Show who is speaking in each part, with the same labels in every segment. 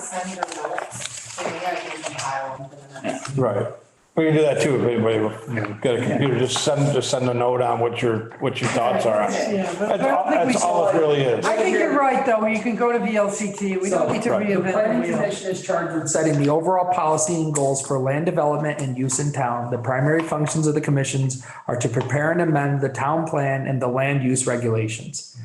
Speaker 1: send me the notes, so maybe I can compile them for the next.
Speaker 2: Right. We can do that too, if anybody, you know, got a computer, just send, just send a note on what your, what your thoughts are. on it.
Speaker 3: Yeah, but I
Speaker 2: That's
Speaker 3: don't
Speaker 2: all,
Speaker 3: think we
Speaker 2: that's all
Speaker 3: saw
Speaker 2: it really is.
Speaker 3: I think you're right, though, you can go to VLCT, we don't need to
Speaker 2: So, right.
Speaker 3: reinvent.
Speaker 4: The
Speaker 3: the
Speaker 4: planning
Speaker 3: wheel.
Speaker 4: commission is charged with setting the overall policy and goals for land development and use in town. The primary functions of the commissions are to prepare and amend the town plan and the land use regulations.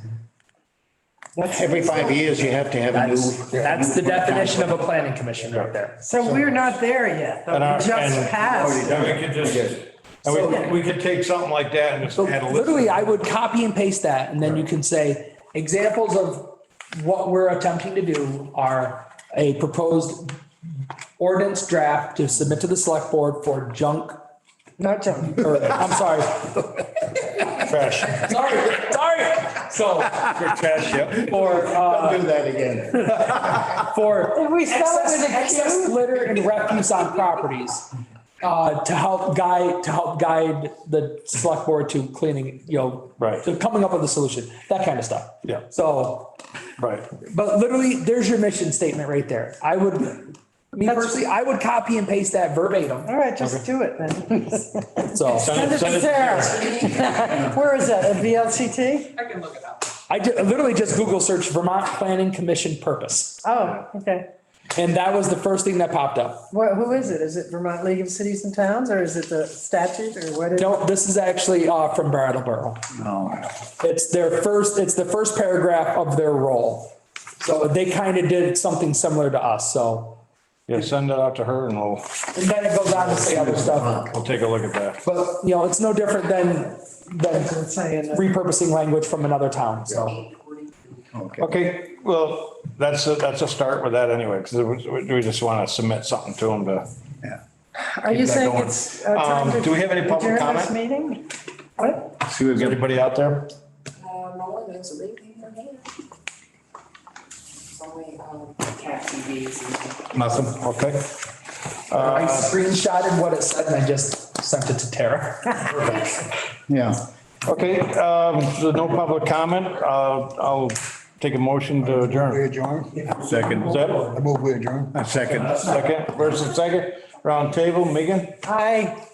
Speaker 5: Every five years, you have to have a
Speaker 4: That's,
Speaker 5: new.
Speaker 4: that's the definition of a planning commission right there.
Speaker 3: So we're not there yet, though,
Speaker 2: And our-
Speaker 3: we
Speaker 2: and-
Speaker 3: just
Speaker 1: Oh,
Speaker 3: passed.
Speaker 2: And we could just, and we, we could take something like that and just
Speaker 4: So
Speaker 2: add a list.
Speaker 4: literally, I would copy and paste that, and then you can say, examples of what we're attempting to do are a proposed ordinance draft to submit to the select board for junk,
Speaker 3: Not junk.
Speaker 4: or, I'm sorry,
Speaker 2: Trash,
Speaker 4: sorry, sorry. So
Speaker 2: trash, yep.
Speaker 4: for, uh,
Speaker 5: Do that again.
Speaker 4: for
Speaker 3: we sell it
Speaker 4: excess,
Speaker 3: with a
Speaker 4: excess litter and refuse on properties. Uh, to help guide, to help guide the select board to cleaning, you know.
Speaker 2: Right.
Speaker 4: To coming up with a solution, that kind of stuff.
Speaker 2: Yeah.
Speaker 4: So,
Speaker 2: Right.
Speaker 4: but literally, there's your mission statement right there. I would, me
Speaker 3: That's-
Speaker 4: personally, I would copy and paste that verbatim,
Speaker 3: All right, just do it then.
Speaker 4: so.
Speaker 2: Send
Speaker 3: Send it to Sarah. Where is that, a VLCT?
Speaker 4: I can look it up. I ju- literally just Google search Vermont Planning Commission purpose,
Speaker 3: Oh, okay.
Speaker 4: and that was the first thing that popped up.
Speaker 3: What, who is it? Is it Vermont League of Cities and Towns, or is it the statute, or what is?
Speaker 4: No, this is actually, uh, from Brattleboro.
Speaker 5: No.
Speaker 4: It's their first, it's the first paragraph of their role. So they kind of did something similar to us, so.
Speaker 2: Yeah, send it out to her and we'll,
Speaker 4: And then it goes on to say other stuff,
Speaker 2: we'll take a look at that.
Speaker 4: but, you know, it's no different than, than
Speaker 3: It's saying that-
Speaker 4: repurposing language from another town, so.
Speaker 5: Okay.
Speaker 2: Okay, well, that's, a- that's a start with that anyway, because we just want to submit something to them to.
Speaker 3: Are
Speaker 2: that
Speaker 3: you saying
Speaker 2: going.
Speaker 3: it's? uh, time
Speaker 2: Um,
Speaker 3: to
Speaker 2: do we have any public
Speaker 3: adjourn
Speaker 2: comment?
Speaker 3: this Meeting? What?
Speaker 5: See, we've
Speaker 2: Is
Speaker 5: got,
Speaker 2: anybody out there?
Speaker 1: Uh, no one, there's a leak in your hand. It's only, um, cat TVs and.
Speaker 2: Nothing, okay.
Speaker 4: I screenshotted what it said and I just sent it to Tara.
Speaker 5: yeah.
Speaker 2: Okay, um, so no public comment, uh, I'll take a motion to
Speaker 6: We
Speaker 2: adjourn.
Speaker 6: adjourn?
Speaker 2: Is
Speaker 5: Second,
Speaker 2: that
Speaker 6: I move we adjourn.
Speaker 5: a second.
Speaker 2: second, first and second, round table, Megan?
Speaker 3: Aye,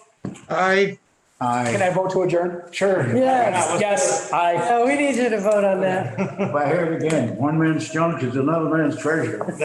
Speaker 6: Aye.
Speaker 4: Can
Speaker 5: Aye.
Speaker 4: I vote to adjourn? Sure.
Speaker 3: yes.
Speaker 4: Yes, I,
Speaker 3: Oh, we need you to vote on that.
Speaker 5: If I hear it again, one man's junk is another man's treasure.